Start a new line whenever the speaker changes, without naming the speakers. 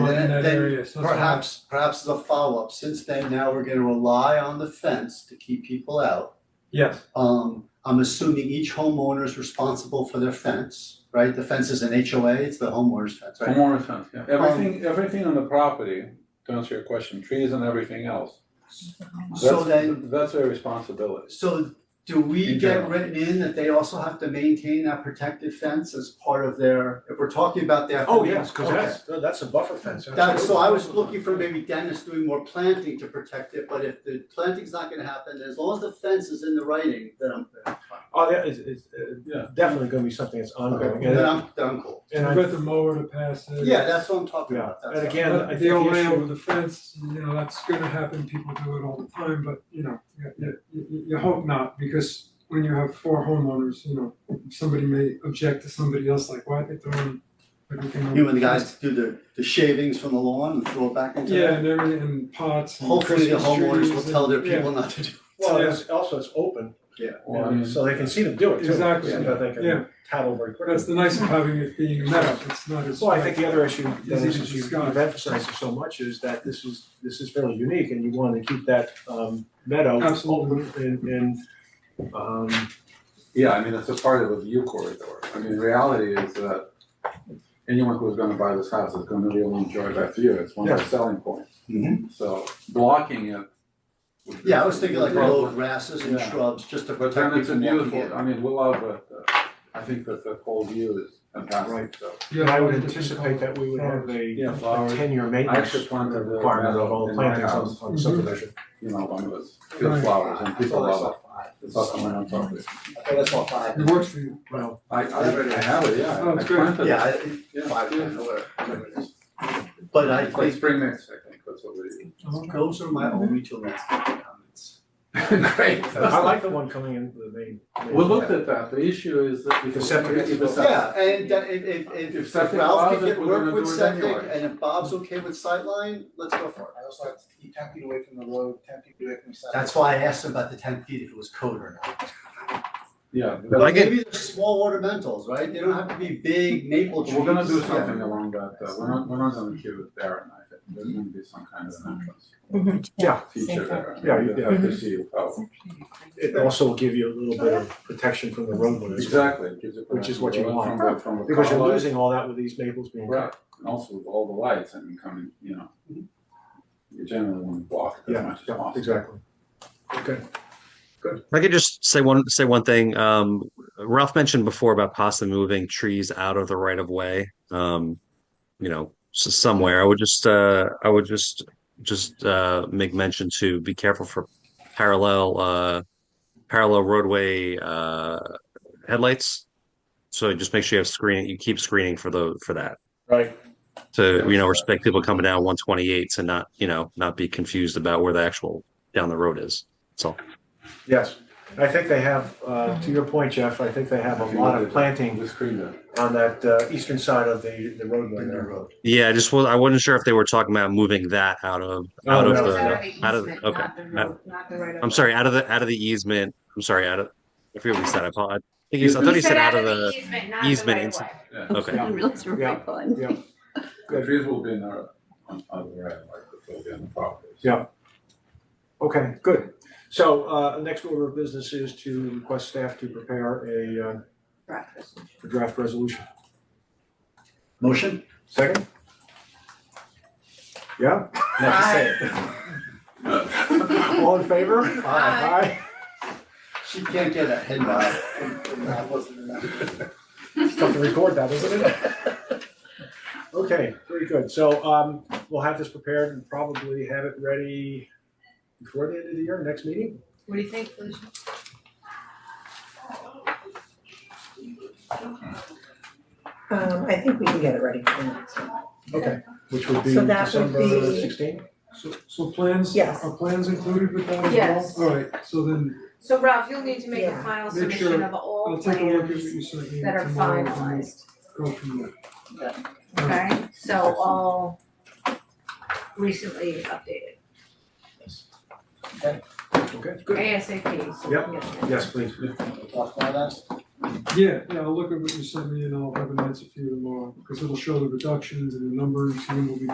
in that
then
area, so it's not-
Perhaps, perhaps the follow-up, since then, now we're gonna rely on the fence to keep people out.
Yes,
Um, I'm assuming each homeowner is responsible for their fence, right? The fence is an HOA, it's the homeowner's fence, right? Um,
Homeowner's fence, yeah, everything, everything on the property, to answer your question, trees and everything else.
So
That's-
then-
That's their responsibility.
So do we
In
get
general.
written in that they also have to maintain that protected fence as part of their, if we're talking about their.
Oh, yes, cause
Okay.
that's, that's a buffer fence.
That, so I was
absolutely.
looking for maybe Dennis doing more planting to protect it, but if the planting's not gonna happen, as long as the fence is in the writing, then I'm, then
Oh, yeah, it's, it's, uh,
Yeah.
definitely gonna be something that's ongoing, and,
I'm, then I'm cool.
and
I
I,
bet the mower to pass it.
Yeah, that's what I'm talking
yeah,
about, that's
and
all.
again, I
But
think
The old
the
man
issue,
over the fence, you know, that's gonna happen, people do it all the time, but you know, you you you you hope not, because when you have four homeowners, you know, somebody may object to somebody else, like, why are they throwing everything on?
You and the guys do the, the shavings from the lawn and throw it back into
Yeah,
there.
and everything, and pots and
Hopefully the
Christmas
homeowners will
trees
tell their
and- yeah.
people not to do.
well, it's, also it's open,
Or, I
you know,
mean,
so they can see them do it too, so
Exactly,
they
yeah.
can tattle very quickly.
That's the nice of having it being a meadow, it's not as.
Well, I think the other issue, that
easy to
is, you've
discuss.
emphasized it so much, is that this is, this is fairly unique, and you wanna keep that, um, meadow
Absolutely.
open and, and, um,
yeah, I mean, it's a part of a view corridor, I mean, reality is that anyone who's gonna buy this house is gonna really enjoy that view, it's one of the
Yeah.
selling points, so blocking it. would be-
Yeah, I was thinking like
would be-
low grasses and
Yeah.
shrubs, just to
But
protect
then it's a
people walking
beautiful,
in.
I mean, we love it, uh, I think that the whole view is fantastic,
Right.
so.
Yeah,
and I would
all different
anticipate that we would have a,
Yeah,
a
flowers,
ten-year
I actually
maintenance
planted a
requirement of all
meadow in my
plantings on,
house,
on subdivision.
you know, one of those
Right.
field flowers, and people love it. It's
Well,
also my own property.
I thought that's all five.
colors. It works for you.
I, I already have it, yeah.
Oh, it's great.
I planted it.
Yeah, I-
Yeah.
five, ten, whatever, whatever it is. But I
It's like
think
spring mix, I think, that's what we
those are my only two landscaping comments.
do. Great.
I like the one coming in the main. main-
We looked at that, the issue is that.
The septic is-
If it's-
Yeah, and that if if if
If
if
septic
Ralph
allows
can
it,
get
we're
work
gonna
with
do it
septic
anyway.
and if Bob's okay with sightline, let's go for it.
I also like to keep ten feet away from the road, ten feet away from the sidewalk.
That's why I asked him about the ten feet, if it was code or not.
Yeah, but
But maybe they're small ornamentals, right? They don't have to be big maple trees.
we're gonna do
Yeah.
something along that, uh, we're not, we're not gonna keep it there, and I think there's gonna be some kind of an entrance.
Yeah.
Feature there.
Yeah, you- yeah.
To see how,
It also will give you a little bit of protection from the roadway as well,
exactly, it gives it.
Which is what you
from
want.
the- From the.
because you're
car light.
losing all that with these maples being cut.
Right, and also with all the lights, I mean, coming, you know. You generally wanna block it as
Yeah,
much as possible.
yeah, exactly. Okay.
If I could just say one say one thing. Um, Ralph mentioned before about possibly moving trees out of the right of way. Um, you know, s somewhere. I would just uh, I would just just uh, make mention to be careful for parallel uh, parallel roadway uh, headlights. So just make sure you have screen. You keep screening for the for that
Right.
to you know respect people coming down 128 and not you know not be confused about where the actual down the road is. That's all.
Yes. I think they have, uh, to your point, Jeff, I think they have a lot of planting
The screen there.
on that, uh, eastern side of the, the roadway there.
Yeah, I just was, I wasn't sure if they were talking about moving that out of,
Oh,
out of
no.
the, out of, okay.
Not the right of.
I'm sorry, out of the, out of the easement, I'm sorry, out of, I forget what he said, I apologize. I think he, I thought he said out of the,
easement, not the
easement
right of
inside.
way.
Yeah.
okay.
Yeah.
Yeah. Yeah.
The trees will be in our, on, on the right, like, they'll be on the property.
Yeah. Okay, good. So, uh, next order of business is to request staff to prepare a, uh,
Breakfast.
draft resolution.
Motion?
Second? Yeah? All in favor?
Aye.
Aye.
She can't get a head nod. That wasn't enough.
It's tough to record that, isn't it? Okay, very good. So um, we'll have this prepared and probably have it ready before the end of the year, next meeting?
What do you think, Felicia?
Um, I think we can get it ready for the next one.
Okay, which would be
So that would
December
be-
sixteen?
So so plans,
Yes.
are plans included with that as well?
Yes.
Alright, so then
So Ralph, you'll need to make a
Yeah.
final
Make
submission
sure-
of all
I'll take a look at what
plans
you sent me
that are
tomorrow and
finalized,
we'll go from there.
okay? So all recently updated,
Okay, good.
ASAP, so
Yep.
we can get that.
Yes, please.
Off my last.
Yeah, yeah, I'll look at what you sent me and I'll have an answer for you tomorrow, because it'll show the reductions and the numbers, and then we'll be